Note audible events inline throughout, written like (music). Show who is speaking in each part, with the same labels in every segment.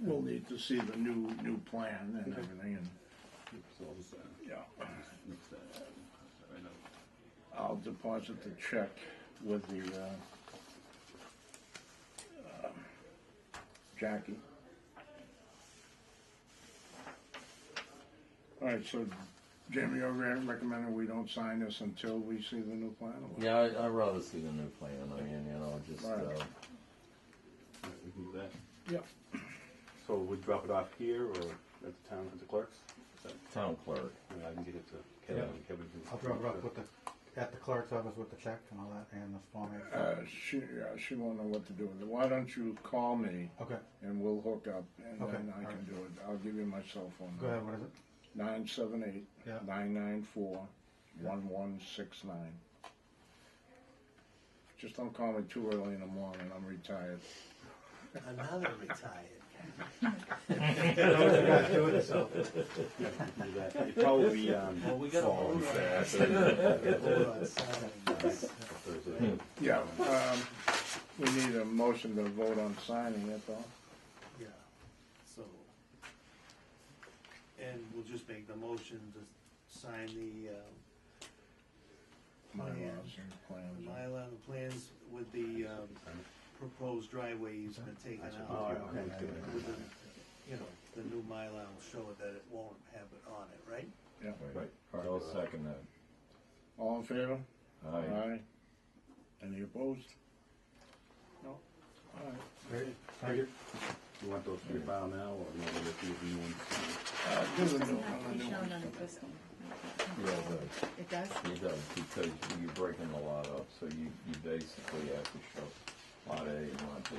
Speaker 1: we'll need to see the new, new plan and everything, and,
Speaker 2: So I'll just, uh,
Speaker 1: yeah.
Speaker 2: mix that up. I know.
Speaker 1: I'll deposit the check with the, uh, um, Jackie. All right, so Jamie, you're re- recommending we don't sign this until we see the new plan? or what?
Speaker 3: Yeah, I, I'd rather see the new plan, I mean, you know, just,
Speaker 1: Right.
Speaker 3: uh,
Speaker 2: All right, we can do that.
Speaker 1: Yep.
Speaker 2: So we drop it off here or at the town, at the clerk's? Is that-
Speaker 3: town clerk.
Speaker 2: or I can get it to Kevin,
Speaker 4: Yeah.
Speaker 2: Kevin can.
Speaker 4: I'll drop it off
Speaker 2: (laughs)
Speaker 4: with the, at the clerk's office with the check and all that and the form. A.
Speaker 1: Uh, she, yeah, she won't know what to do with it. Why don't you call me
Speaker 4: Okay,
Speaker 1: and we'll hook up and
Speaker 4: Okay,
Speaker 1: then I
Speaker 4: all
Speaker 1: can
Speaker 4: right.
Speaker 1: do it. I'll give you my cell phone.
Speaker 4: go ahead, what is it?
Speaker 1: Nine seven eight,
Speaker 4: Yeah.
Speaker 1: nine nine four, one one six nine. Just don't call me too early in the morning, I'm retired.
Speaker 5: Another retired.
Speaker 2: You can do that. It'd probably be, um,
Speaker 5: Well, we got a whole Hold on, signing this.
Speaker 2: Thursday.
Speaker 1: Yeah, um, we need a motion to vote on signing it though.
Speaker 5: Yeah, so. And we'll just make the motion to sign the, uh,
Speaker 1: My laws
Speaker 5: Plan.
Speaker 1: and plans.
Speaker 5: Mylar, the plans with the, um, proposed driveway easement taken out.
Speaker 2: Oh, okay.
Speaker 5: With the, you know, the new Mylar will show it that it won't have it on it, right?
Speaker 1: Yeah,
Speaker 3: Right. I'll second that.
Speaker 1: all in favor?
Speaker 3: Aye.
Speaker 1: Any opposed? No? All right.
Speaker 4: Great, thank you.
Speaker 2: You want those to be filed now or you want to do the new ones?
Speaker 1: Uh, do the
Speaker 6: Doesn't
Speaker 1: new
Speaker 6: have to
Speaker 1: one,
Speaker 6: be
Speaker 1: the new
Speaker 6: shown
Speaker 1: one.
Speaker 6: on existing.
Speaker 3: Yeah, it does.
Speaker 6: It does?
Speaker 3: It does, because you're breaking a lot up, so you, you basically have to show lot A and lot B.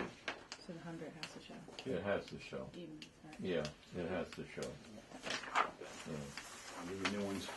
Speaker 6: So the hundred has to show,
Speaker 3: It has to show.
Speaker 6: even, right?
Speaker 3: Yeah, it has to show. Yeah.
Speaker 2: I'll do the new ones.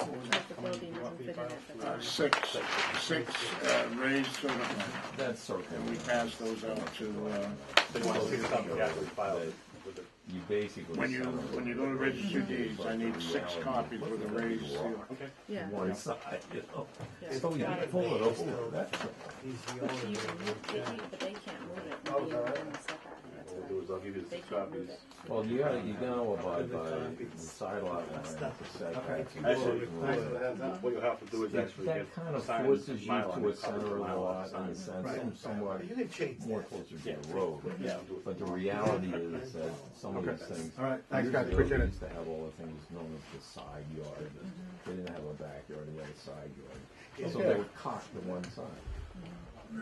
Speaker 6: Like the building doesn't fit in at the
Speaker 1: Uh,
Speaker 6: time.
Speaker 1: six, six, uh, raised sort of,
Speaker 3: That's circle.
Speaker 1: and we pass those out to, uh,
Speaker 2: They want to see this up, yeah, we file it with the-
Speaker 3: You basically.
Speaker 1: When you,
Speaker 3: sell it.
Speaker 1: when you go to register deeds, I need six copies with a raised seal.
Speaker 6: Yeah.
Speaker 3: One side, you know.
Speaker 6: Yeah.
Speaker 3: So you
Speaker 6: Got it.
Speaker 3: pull it over, that's,
Speaker 5: He's the
Speaker 6: But you
Speaker 5: owner.
Speaker 6: can move, they can, but they can't move it.
Speaker 4: Oh, is that
Speaker 6: Maybe
Speaker 4: right?
Speaker 6: within the setback, that's
Speaker 2: What we'll
Speaker 6: why.
Speaker 2: do is I'll give you the
Speaker 6: They
Speaker 2: six
Speaker 6: can't move
Speaker 2: copies.
Speaker 6: it.
Speaker 3: well, you gotta, you gotta abide
Speaker 4: uh,
Speaker 3: by the side lot line, the setbacks. and
Speaker 2: Actually,
Speaker 3: the road.
Speaker 2: What you'll have to do is actually get.
Speaker 3: That kind of
Speaker 2: sign
Speaker 3: forces you
Speaker 2: Mylar,
Speaker 3: to a
Speaker 2: copy
Speaker 3: center of the
Speaker 2: Mylar,
Speaker 3: lot in
Speaker 2: sign.
Speaker 3: a sense,
Speaker 5: Right.
Speaker 3: some- somewhat
Speaker 5: You can change
Speaker 3: more
Speaker 5: that.
Speaker 3: closer
Speaker 2: Yeah.
Speaker 3: to the road.
Speaker 2: Yeah, I'll do it.
Speaker 3: But the reality is that some of
Speaker 4: Okay.
Speaker 3: these things.
Speaker 4: All right, thanks, guys,
Speaker 3: Usually
Speaker 4: appreciate
Speaker 3: they
Speaker 4: it.
Speaker 3: used to have all the things known as the side yard, but they didn't have a backyard, they had a side yard. So they were cocked to one side.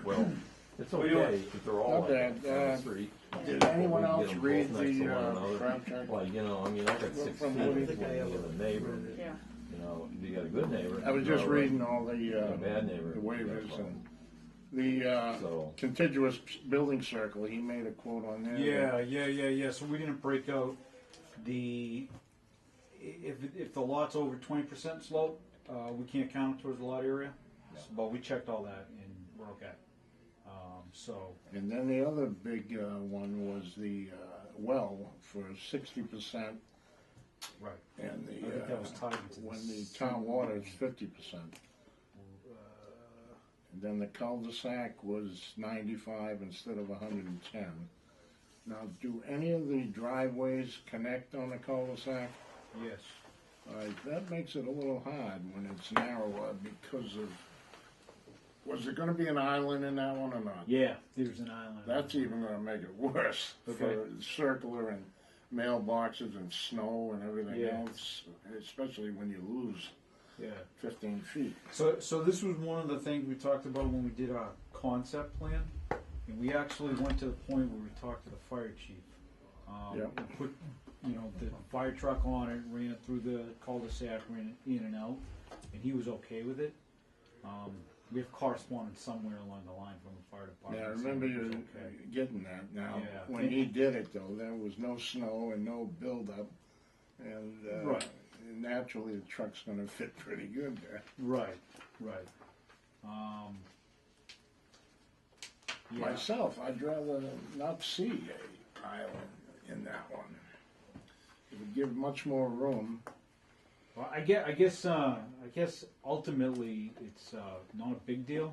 Speaker 3: Well, it's okay if they're all like
Speaker 1: Okay,
Speaker 3: that on
Speaker 1: uh,
Speaker 3: the street.
Speaker 1: Did anyone
Speaker 3: We can get
Speaker 1: else
Speaker 3: them both
Speaker 1: read
Speaker 3: next to
Speaker 1: the,
Speaker 3: one
Speaker 1: uh,
Speaker 3: another.
Speaker 1: contract?
Speaker 3: Well, you know, I mean, I got six feet
Speaker 1: From
Speaker 3: between
Speaker 1: Woody.
Speaker 3: me and the neighbor,
Speaker 6: Yeah.
Speaker 3: you know, you got a good neighbor.
Speaker 1: I was
Speaker 3: you
Speaker 1: just
Speaker 3: know, right?
Speaker 1: reading all the, uh,
Speaker 3: A bad neighbor.
Speaker 1: the waivers
Speaker 3: That's all.
Speaker 1: and the, uh,
Speaker 3: So-
Speaker 1: contiguous building circle, he made a quote on there.
Speaker 7: Yeah, yeah, yeah, yeah. So we didn't break out the, if, if the lot's over twenty percent slope, uh, we can't count it towards the lot area. But we checked all that and we're okay. Um, so,
Speaker 1: And then the other big, uh, one was the, uh, well for sixty percent
Speaker 7: right,
Speaker 1: and the,
Speaker 7: I think that was
Speaker 1: uh,
Speaker 7: tied into
Speaker 1: when the
Speaker 7: this.
Speaker 1: town water is fifty percent. And then the cul-de-sac was ninety-five instead of hundred and ten. Now, do any of the driveways connect on the cul-de-sac?
Speaker 7: yes.
Speaker 1: All right, that makes it a little hard when it's narrower because of, was there gonna be an island in that one or not?
Speaker 7: Yeah, there's an island.
Speaker 1: That's even gonna make it worse for
Speaker 7: Okay.
Speaker 1: circular and mailboxes and snow and everything
Speaker 7: Yeah.
Speaker 1: else, especially when you lose
Speaker 7: Yeah.
Speaker 1: fifteen feet.
Speaker 7: So, so this was one of the things we talked about when we did our concept plan, and we actually went to the point where we talked to the fire chief. Um,
Speaker 1: Yep.
Speaker 7: and Put, you know, the fire truck on it, ran it through the cul-de-sac, ran it in and out, and he was okay with it. Um, we have correspondence somewhere along the line from the fire
Speaker 1: Yeah,
Speaker 7: department.
Speaker 1: I remember
Speaker 7: saying it was
Speaker 1: you
Speaker 7: okay.
Speaker 1: getting that now.
Speaker 7: Yeah.
Speaker 1: When he did it though, there was no snow and no buildup. And, uh,
Speaker 7: Right.
Speaker 1: naturally the truck's gonna fit pretty good there.
Speaker 7: Right, right. Um. yeah.
Speaker 1: Myself, I'd rather not see a island in that one. It would give much more room.
Speaker 7: Well, I guess, I guess, uh, I guess ultimately it's, uh, not a big deal.